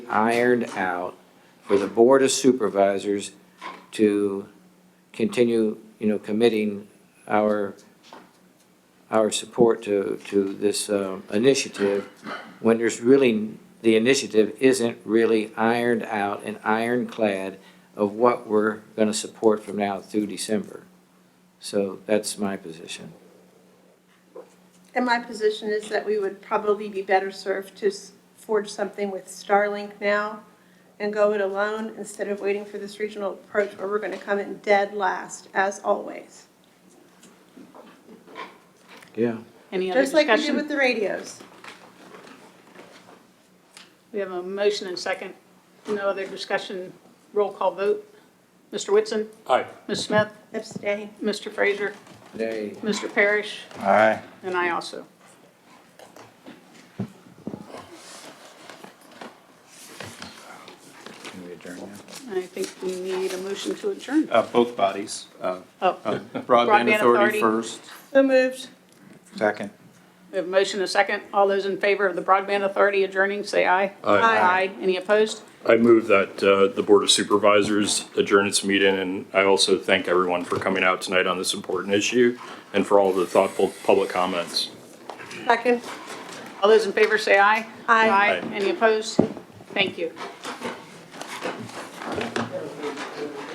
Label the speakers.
Speaker 1: ironed out for the Board of Supervisors to continue, you know, committing our, our support to, to this um, initiative when there's really, the initiative isn't really ironed out and ironclad of what we're going to support from now through December. So that's my position.
Speaker 2: And my position is that we would probably be better served to s- forge something with Starlink now and go it alone instead of waiting for this regional approach where we're going to come in dead last, as always.
Speaker 1: Yeah.
Speaker 3: Any other
Speaker 2: Just like we did
Speaker 3: discussion?
Speaker 2: with the radios.
Speaker 3: We have a motion and second. No other discussion. Roll call vote. Mr. Whitson?
Speaker 4: Aye.
Speaker 3: Ms. Smith?
Speaker 2: Abstain.
Speaker 3: Mr. Fraser?
Speaker 1: Nay.
Speaker 3: Mr. Parrish?
Speaker 5: Aye.
Speaker 3: And I also.
Speaker 5: Can we adjourn now?
Speaker 3: I think we need a motion to adjourn.
Speaker 6: Uh, both bodies, uh, uh,
Speaker 3: Oh,
Speaker 6: Broadband
Speaker 3: Broadband Authority.
Speaker 6: Authority first.
Speaker 2: So moved.
Speaker 5: Second.
Speaker 3: we have a motion and second. All those in favor of the Broadband Authority adjourning, say aye. Aye. Any opposed?
Speaker 4: I move that uh, the Board of Supervisors adjourn its meeting, and I also thank everyone for coming out tonight on this important issue and for all the thoughtful public comments.
Speaker 2: Second.
Speaker 3: All those in favor, say aye.
Speaker 2: Aye.
Speaker 3: Any opposed? Thank you.